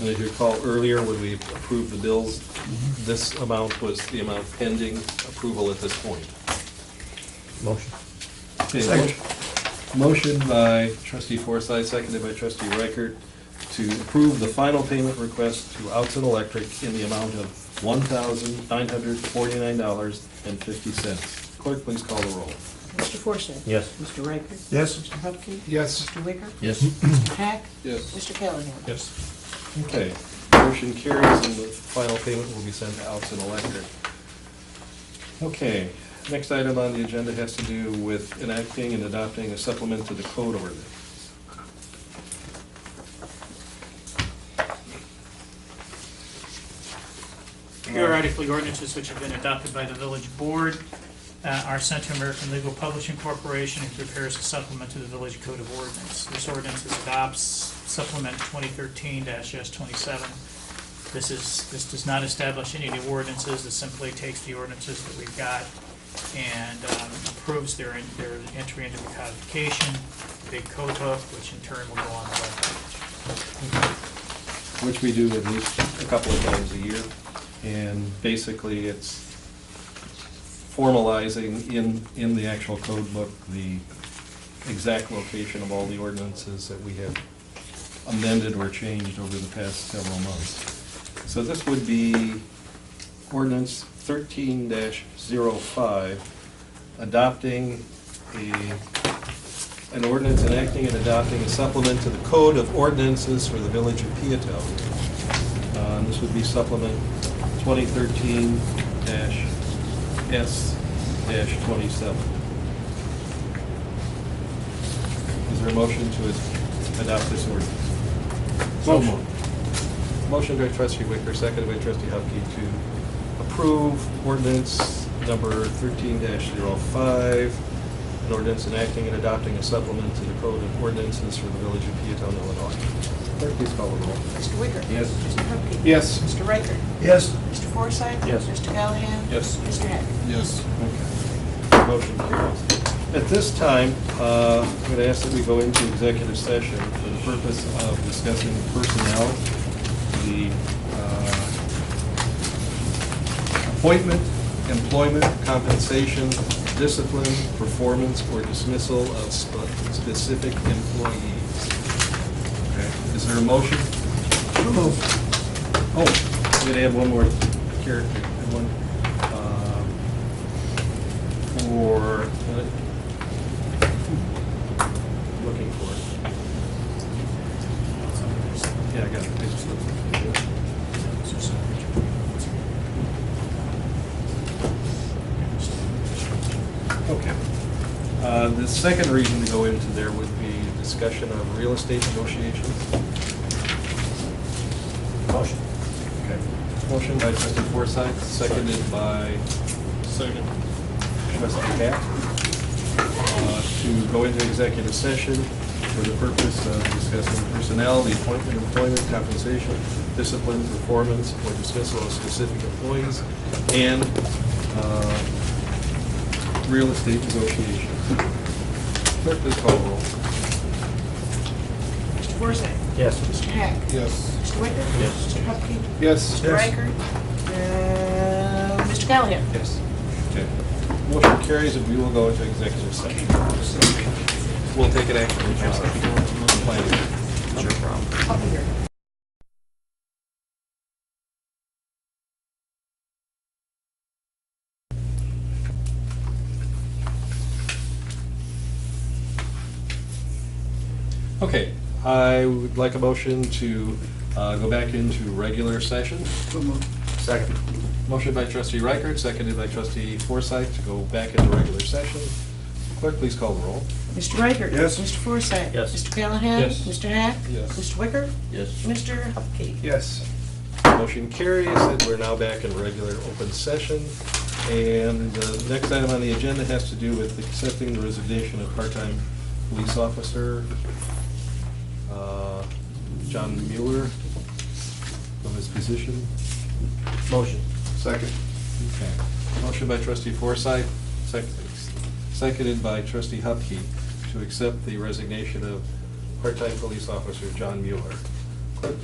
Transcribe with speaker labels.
Speaker 1: And if you recall earlier, when we approved the bills, this amount was the amount pending approval at this point.
Speaker 2: Motion.
Speaker 1: Okay,
Speaker 2: Second.
Speaker 1: Motion by trustee Forsythe, seconded by trustee Reichert, to approve the final payment request to Outson Electric in the amount of one thousand nine hundred forty-nine dollars and fifty cents. Clerk, please call the roll.
Speaker 3: Mr. Forsyth?
Speaker 2: Yes.
Speaker 3: Mr. Riker?
Speaker 2: Yes.
Speaker 3: Mr. Hupkey?
Speaker 4: Yes.
Speaker 3: Mr. Wicker?
Speaker 2: Yes.
Speaker 3: Mr. Hack?
Speaker 1: Yes.
Speaker 3: Mr. Callahan?
Speaker 2: Yes.
Speaker 1: Okay, motion carries and the final payment will be sent to Outson Electric. Okay, next item on the agenda has to do with enacting and adopting a supplement to the code ordinance.
Speaker 5: Periodically ordinances which have been adopted by the village board. Uh, Our Central American Legal Publishing Corporation and prepares a supplement to the village code of ordinance. This ordinance is adopts supplement 2013-S27. This is, this does not establish any new ordinances, it simply takes the ordinances that we've got and um, approves their, their entry into the codification, big code book, which in turn will go on the webpage.
Speaker 1: which we do at least a couple of times a year. And basically, it's formalizing in, in the actual code book, the exact location of all the ordinances that we have amended or changed over the past several months. So this would be ordinance thirteen 5 adopting a an ordinance enacting and adopting a supplement to the Code of Ordinances for the Village of Peatone. Uh, and This would be supplement 2013-S-27. Is there a motion to adopt this ordinance?
Speaker 2: So
Speaker 1: Motion by trustee Wicker, seconded by trustee Hupkey to approve ordinance number thirteen 5 an ordinance enacting and adopting a supplement to the Code of Ordinances for the Village of Peatone, Illinois. Clerk, please call the roll.
Speaker 3: Mr. Wicker?
Speaker 1: Yes.
Speaker 3: Mr. Hupkey?
Speaker 4: Yes.
Speaker 3: Mr. Riker?
Speaker 2: Yes.
Speaker 3: Mr. Forsyth?
Speaker 2: Yes.
Speaker 3: Mr. Callahan?
Speaker 1: Yes.
Speaker 3: Mr. Hack?
Speaker 4: Yes.
Speaker 1: Okay. Motion carries. At this time, uh, I'm going to ask that we go into executive session for the purpose of discussing personnel, the uh, appointment, employment, compensation, discipline, performance, or dismissal of sp- specific employees. Okay. Is there a motion? Oh, I'm going to add one more character, and one, um, for, uh, looking for it. Yeah, I got it. I just looked for it. Okay. Uh, The second reason to go into there would be discussion of real estate negotiations.
Speaker 2: Motion.
Speaker 1: Okay. Motion by trustee Forsythe, seconded by
Speaker 4: Second.
Speaker 1: trustee Cap, uh, to go into executive session for the purpose of discussing personnel, the appointment, employment, compensation, discipline, performance, or dismissal of specific employees, and uh, real estate negotiations. Clerk, please call the roll.
Speaker 3: Mr. Forsyth?
Speaker 2: Yes.
Speaker 3: Mr. Hack?
Speaker 4: Yes.
Speaker 3: Mr. Wicker?
Speaker 2: Yes.
Speaker 3: Mr. Hupkey?
Speaker 4: Yes.
Speaker 3: Mr. Riker? Uh, Mr. Callahan?
Speaker 1: Yes. Okay. Motion carries, and we will go into executive session. We'll take it after the job. Planning.
Speaker 3: Up here.
Speaker 1: Okay, I would like a motion to uh, go back into regular session.
Speaker 2: Second.
Speaker 1: Motion by trustee Reichert, seconded by trustee Forsythe to go back into regular session. Clerk, please call the roll.
Speaker 3: Mr. Riker?
Speaker 4: Yes.
Speaker 3: Mr. Forsyth?
Speaker 2: Yes.
Speaker 3: Mr. Callahan?
Speaker 4: Yes.
Speaker 3: Mr. Hack?
Speaker 1: Yes.
Speaker 3: Mr. Wicker?
Speaker 2: Yes.
Speaker 3: Mr. Hupkey?
Speaker 4: Yes.
Speaker 1: Motion carries, and we're now back in regular open session. And the next item on the agenda has to do with accepting the resignation of part-time police officer uh, John Mueller from his position.
Speaker 2: Motion.
Speaker 4: Second.
Speaker 1: Okay. Motion by trustee Forsythe, sec- seconded by trustee Hupkey to accept the resignation of part-time police officer John Mueller.